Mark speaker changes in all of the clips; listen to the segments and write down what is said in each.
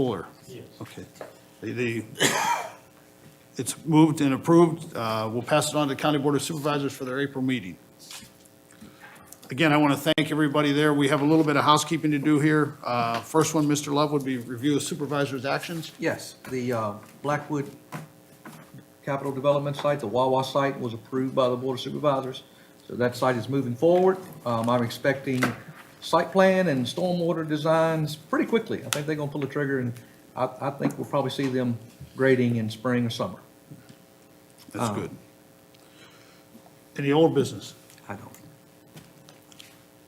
Speaker 1: Fuller? Yes. Okay. The- The, it's moved and approved. Uh, We'll pass it on to the County Board of Supervisors for their April meeting. Again, I want to thank everybody there. We have a little bit of housekeeping to do here. Uh, First one, Mr. Love, would be review of supervisors' actions.
Speaker 2: Yes, the uh, Blackwood Capital Development site, the Wawa site, was approved by the Board of Supervisors. So that site is moving forward. Um, I'm expecting site plan and stormwater designs pretty quickly. I think they're gonna pull the trigger, and I, I think we'll probably see them grading in spring or summer.
Speaker 1: That's good. Any old business?
Speaker 2: I don't.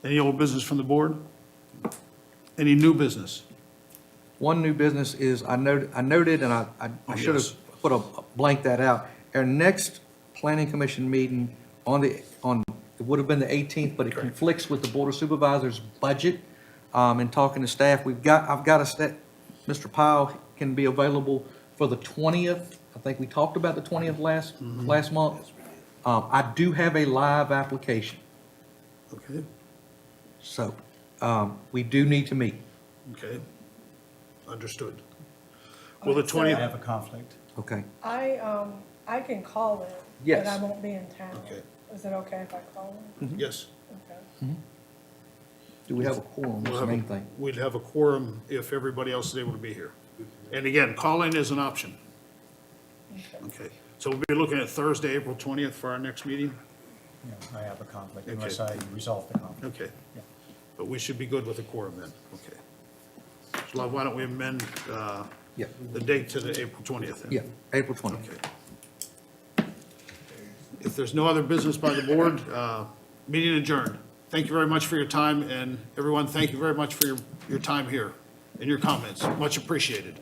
Speaker 1: Any old business from the board? Any new business?
Speaker 2: One new business is, I noted, I noted, and I, I-
Speaker 1: Oh,
Speaker 2: I should
Speaker 1: yes.
Speaker 2: have put a blank that out. Our next planning commission meeting on the, on, it would have been the 18th, but it conflicts with the board of supervisors' budget. Um, and talking to staff, we've got, I've got a stat, Mr. Powell can be available for the 20th. I think we talked about the 20th last, last month. Um, I do have a live application,
Speaker 1: Okay,
Speaker 2: so, um, we do need to meet,
Speaker 1: okay. Understood. Well, the
Speaker 3: Okay, so-
Speaker 1: 20th.
Speaker 4: I have a conflict.
Speaker 2: okay?
Speaker 3: I, um, I can call it.
Speaker 2: Yes.
Speaker 3: But I won't be in town.
Speaker 1: Okay.
Speaker 3: Is it okay if I call it?
Speaker 1: Yes.
Speaker 3: Okay.
Speaker 2: Do we have a
Speaker 1: We'll
Speaker 2: quorum, that's the
Speaker 1: have a-
Speaker 2: main thing.
Speaker 1: We'd have a quorum if everybody else is able to be here. And again, call-in is an option. Okay, so we'll be looking at Thursday, April 20th for our next meeting?
Speaker 4: Yeah, I have a conflict
Speaker 1: Okay.
Speaker 4: unless I resolve the conflict.
Speaker 1: Okay,
Speaker 4: Yeah.
Speaker 1: but we should be good with a quorum then, okay. So Love, why don't we amend uh,
Speaker 2: Yeah.
Speaker 1: the date to the April 20th? then?
Speaker 2: Yeah, April 20th.
Speaker 1: Okay. If there's no other business by the board, uh, meeting adjourned. Thank you very much for your time, and everyone, thank you very much for your, your time here and your comments. Much appreciated.